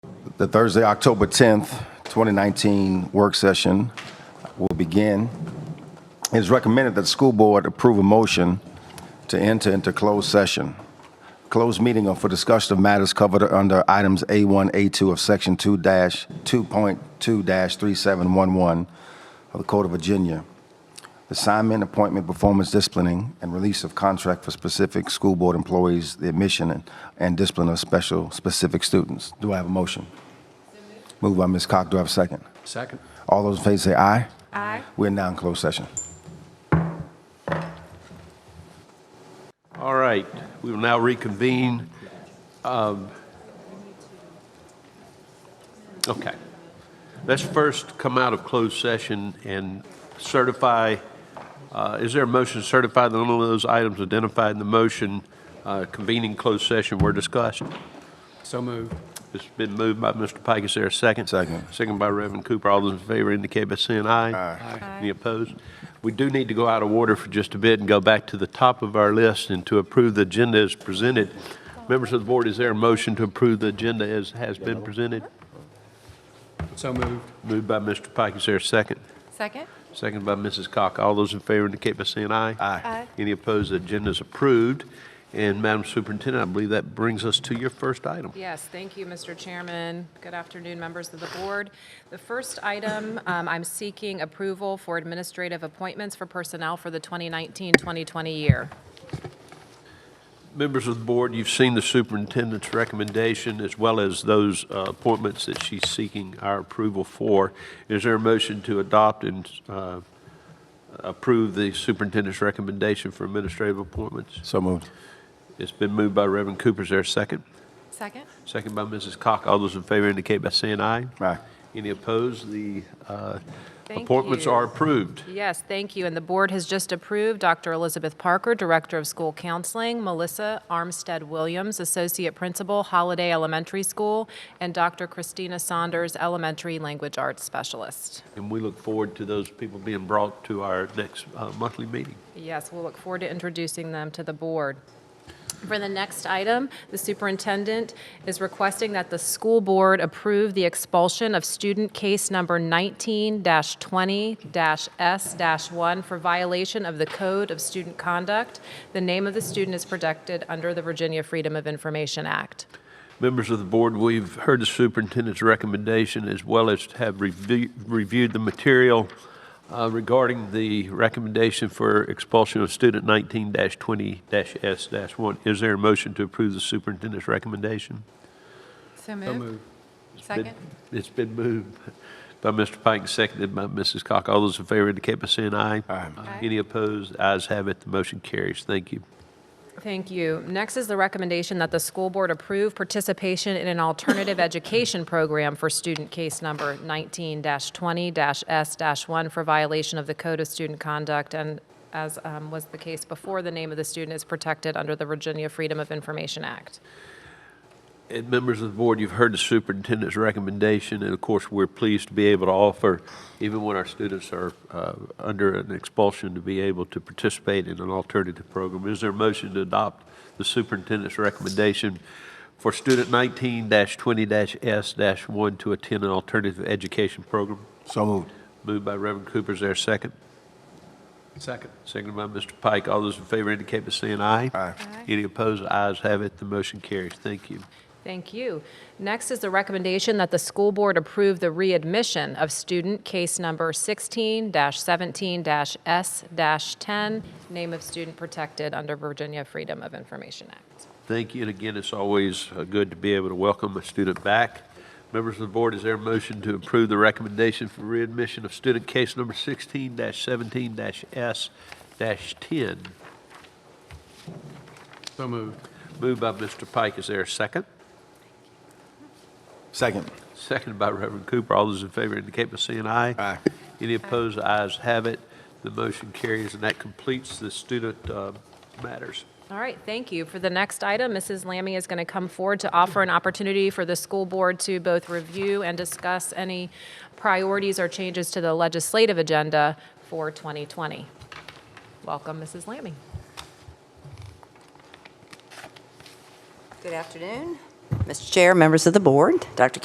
The Thursday, October 10th, 2019 work session will begin. It is recommended that the school board approve a motion to enter into closed session. Closed meeting are for discussion of matters covered under items A1, A2 of Section 2-2.2-3711 of the Code of Virginia. Assignment, appointment, performance, disciplining, and release of contract for specific school board employees, the admission and- and discipline of special, specific students. Do I have a motion? Moved by Ms. Cox, do I have a second? Second. All those in favor say aye. Aye. We're now in closed session. All right, we will now reconvene. Um, Okay. Let's first come out of closed session and certify, uh, is there a motion to certify that none of those items identified in the motion uh, convening closed session were discussed? So moved. It's been moved by Mr. Pike. Is there a second? Second. Second by Reverend Cooper. All those in favor indicate by saying aye. Aye. Any opposed? We do need to go out of order for just a bit and go back to the top of our list and to approve the agenda as presented. Members of the board, is there a motion to approve the agenda as has been presented? So moved. Moved by Mr. Pike. Is there a second? Second? Second by Mrs. Cock. All those in favor indicate by saying aye. Aye. Any opposed? The agenda is approved. And Madam Superintendent, I believe that brings us to your first item. Yes, thank you, Mr. Chairman. Good afternoon, members of the board. The first item, um, I'm seeking approval for administrative appointments for personnel for the 2019-2020 year. Members of the board, you've seen the superintendent's recommendation as well as those uh, appointments that she's seeking our approval for. Is there a motion to adopt and uh, approve the superintendent's recommendation for administrative appointments? So moved. It's been moved by Reverend Cooper. Is there a second? Second? Second by Mrs. Cock. All those in favor indicate by saying aye. Aye. Any opposed? The uh, Thank appointments you. are approved. Yes, thank you. And the board has just approved Dr. Elizabeth Parker, Director of School Counseling, Melissa Armstead Williams, Associate Principal, Holiday Elementary School, and Dr. Christina Saunders, Elementary Language Arts Specialist. And we look forward to those people being brought to our next uh, monthly meeting. Yes, we'll look forward to introducing them to the board. For the next item, the superintendent is requesting that the school board approve the expulsion of student case number 19-20-S-1 for violation of the Code of Student Conduct. The name of the student is protected under the Virginia Freedom of Information Act. Members of the board, we've heard the superintendent's recommendation as well as have review- reviewed the material uh, regarding the recommendation for expulsion of student 19-20-S-1. Is there a motion to approve the superintendent's recommendation? So So moved. Second. It's been moved by Mr. Pike, and seconded by Mrs. Cock. All those in favor indicate by saying aye. Aye. Any opposed? Ayes have it, the motion carries. Thank you. Thank you. Next is the recommendation that the school board approve participation in an alternative education program for student case number 19-20-S-1 for violation of the Code of Student Conduct, and as um, was the case before, the name of the student is protected under the Virginia Freedom of Information Act. And members of the board, you've heard the superintendent's recommendation, and of course, we're pleased to be able to offer, even when our students are uh, under an expulsion, to be able to participate in an alternative program. Is there a motion to adopt the superintendent's recommendation for student 19-20-S-1 to attend an alternative education program? So moved. Moved by Reverend Cooper, is there a second? Second. Seconded by Mr. Pike. All those in favor indicate by saying aye. Aye. Any opposed? Ayes have it, the motion carries. Thank you. Thank you. Next is the recommendation that the school board approve the readmission of student case number 16-17-S-10, name of student protected under Virginia Freedom of Information Act. Thank you, and again, it's always uh, good to be able to welcome a student back. Members of the board, is there a motion to approve the recommendation for readmission of student case number 16-17-S-10? So moved. Moved by Mr. Pike, is there a second? Second. Seconded by Reverend Cooper, all those in favor indicate by saying aye. Aye. Any opposed, The ayes have it, the motion carries, and that completes the student uh, matters. All right, thank you. For the next item, Mrs. Lammy is going to come forward to offer an opportunity for the school board to both review and discuss any priorities or changes to the legislative agenda for 2020. Welcome, Mrs. Lammy. Good afternoon, Mr. Chair, members of the board, Dr.